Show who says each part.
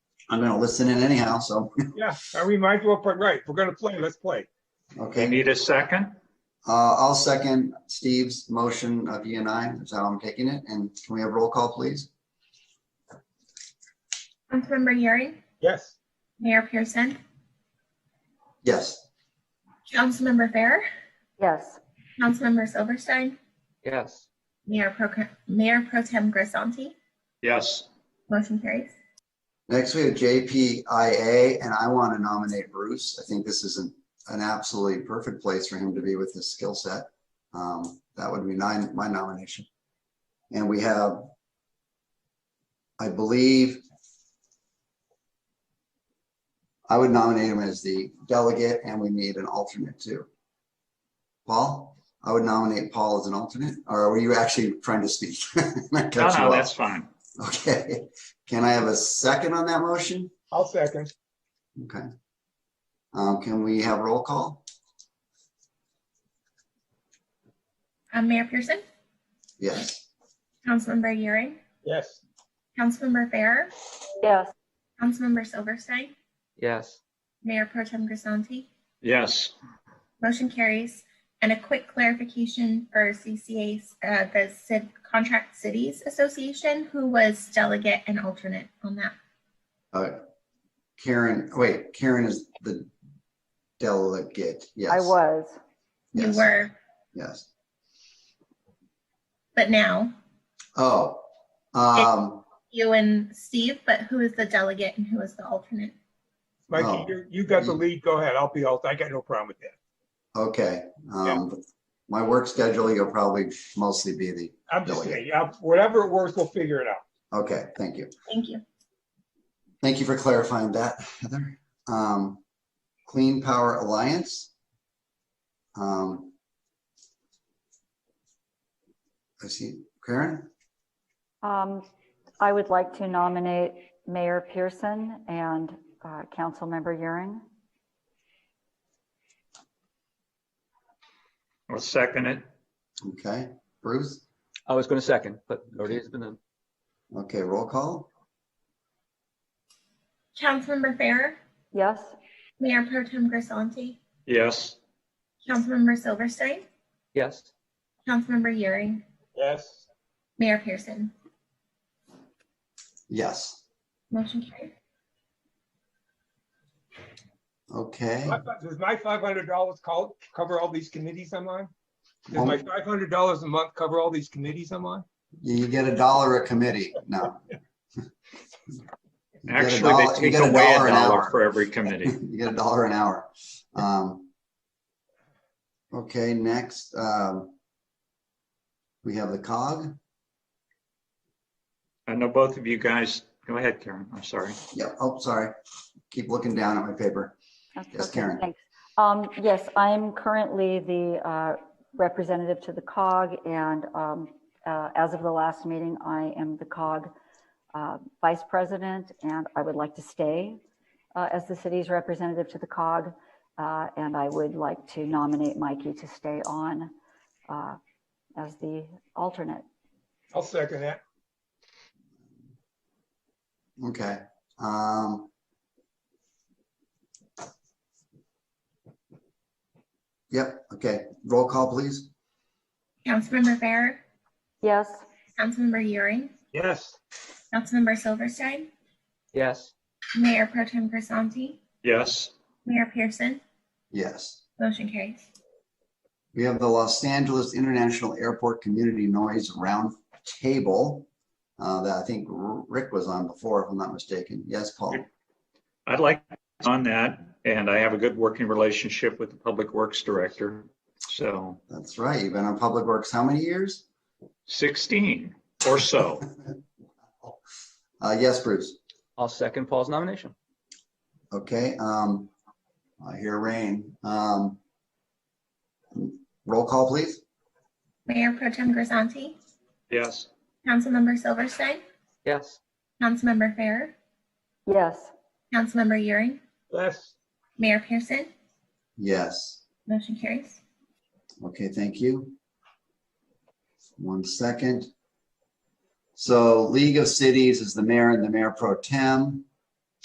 Speaker 1: I'm gonna listen in anyhow, so,
Speaker 2: Yeah, I mean, might as well, put right, if we're gonna play, let's play.
Speaker 3: You
Speaker 1: okay.
Speaker 3: need a second?
Speaker 1: Uh, I'll second Steve's motion of you and I, is how I'm taking it. And can we have roll call, please?
Speaker 4: Councilmember Yuri,
Speaker 2: Yes,
Speaker 4: Mayor Pearson,
Speaker 1: Yes,
Speaker 4: Councilmember Fair,
Speaker 5: Yes.
Speaker 4: Councilmember Silverstein,
Speaker 6: yes,
Speaker 4: Mayor Pro, Mayor Pro Tem Grisanti.
Speaker 3: Yes.
Speaker 4: Motion carries.
Speaker 1: next we have JPIA, and I want to nominate Bruce. I think this is an, an absolutely perfect place for him to be with his skill set. Um, that would be nine, my nomination. And we have, I believe, I would nominate him as the delegate, and we need an alternate too. Paul, I would nominate Paul as an alternate, or were you actually trying to speak? I
Speaker 3: No,
Speaker 1: cut you
Speaker 3: no,
Speaker 1: off.
Speaker 3: that's fine.
Speaker 1: Okay, can I have a second on that motion?
Speaker 2: I'll second.
Speaker 1: Okay. Um, can we have roll call?
Speaker 4: Um, Mayor Pearson,
Speaker 1: Yes,
Speaker 4: Councilmember Yuri,
Speaker 2: Yes,
Speaker 4: Councilmember Fair,
Speaker 5: Yes.
Speaker 4: Councilmember Silverstein,
Speaker 6: yes.
Speaker 4: Mayor Pro Tem Grisanti.
Speaker 3: Yes.
Speaker 4: Motion carries. And a quick clarification for CCA, uh, the Civ Contract Cities Association, who was delegate and alternate on that.
Speaker 1: uh, Karen, wait, Karen is the delegate, yes.
Speaker 5: I was.
Speaker 4: You
Speaker 1: yes,
Speaker 4: were,
Speaker 1: Yes,
Speaker 4: but now
Speaker 1: oh, um,
Speaker 4: you and Steve, but who is the delegate and who is the alternate?
Speaker 1: Oh.
Speaker 2: Mikey, you, you got the lead, go ahead, I'll be alt, I got no problem with that.
Speaker 1: okay,
Speaker 2: Yeah.
Speaker 1: um, my work schedule, you'll probably mostly be the,
Speaker 2: I'm just
Speaker 1: Delegate.
Speaker 2: saying, yeah, whatever it works, we'll figure it out.
Speaker 1: okay, thank you.
Speaker 4: Thank you.
Speaker 1: Thank you for clarifying that, Heather. Um, Clean Power Alliance. Um, I see Karen.
Speaker 5: Um, I would like to nominate Mayor Pearson and uh, Councilmember Euring.
Speaker 3: I'll second it.
Speaker 1: Okay, Bruce.
Speaker 6: I was going to second, but already has been done.
Speaker 1: Okay, roll call.
Speaker 4: Councilmember Farrer,
Speaker 5: Yes.
Speaker 4: Mayor Pro Tem Grisanti,
Speaker 3: Yes.
Speaker 4: Councilmember Silverstein,
Speaker 6: Yes,
Speaker 4: Councilmember Euring,
Speaker 2: Yes,
Speaker 4: Mayor Pearson.
Speaker 1: Yes.
Speaker 4: Motion carries.
Speaker 1: Okay.
Speaker 2: My fi- does my five hundred dollars call, cover all these committees I'm on? Does my
Speaker 1: Well,
Speaker 2: five hundred dollars a month cover all these committees I'm on?
Speaker 1: You get a dollar a committee. No. You get a
Speaker 3: Actually,
Speaker 1: dollar-
Speaker 3: they
Speaker 1: you
Speaker 3: take
Speaker 1: get a
Speaker 3: away a
Speaker 1: dollar an
Speaker 3: dollar
Speaker 1: hour.
Speaker 3: for every committee.
Speaker 1: You get a dollar an hour. Um, okay, next, um, we have the COG.
Speaker 3: I know both of you guys, go ahead, Karen, I'm sorry.
Speaker 1: Yeah, oh, sorry. Keep looking down at my paper.
Speaker 5: That's
Speaker 1: Yes,
Speaker 5: okay,
Speaker 1: Karen.
Speaker 5: Thanks. Um, yes, I'm currently the uh, representative to the COG and um, uh, as of the last meeting, I am the COG uh, vice president and I would like to stay uh, as the city's representative to the COG. uh, And I would like to nominate Mikey to stay on uh, as the alternate.
Speaker 2: I'll second that.
Speaker 1: Okay, um. Yep, okay, roll call, please.
Speaker 4: Councilmember Farrer,
Speaker 5: Yes,
Speaker 4: Councilmember Euring,
Speaker 2: Yes,
Speaker 4: Councilmember Silverstein,
Speaker 6: yes,
Speaker 4: Mayor Pro Tem Grisanti,
Speaker 3: Yes.
Speaker 4: Mayor Pearson.
Speaker 1: Yes.
Speaker 4: Motion carries.
Speaker 1: We have the Los Angeles International Airport Community Noise Roundtable. Uh, that I think R- Rick was on before, if I'm not mistaken. Yes, Paul?
Speaker 3: I'd like on that, and I have a good working relationship with the Public Works Director. So
Speaker 1: That's right. You've been on Public Works how many years?
Speaker 3: 16 or so.
Speaker 1: Uh, yes, Bruce.
Speaker 6: I'll second Paul's nomination.
Speaker 1: Okay, um, I hear rain. Um, roll call, please.
Speaker 4: Mayor Pro Tem Grisanti,
Speaker 3: Yes.
Speaker 4: Councilmember Silverstein,
Speaker 6: Yes,
Speaker 4: Councilmember Farrer,
Speaker 5: yes.
Speaker 4: Councilmember Euring,
Speaker 2: yes,
Speaker 4: Mayor Pearson.
Speaker 1: Yes.
Speaker 4: Motion carries.
Speaker 1: Okay, thank you. One second. So League of Cities is the mayor and the mayor pro tem.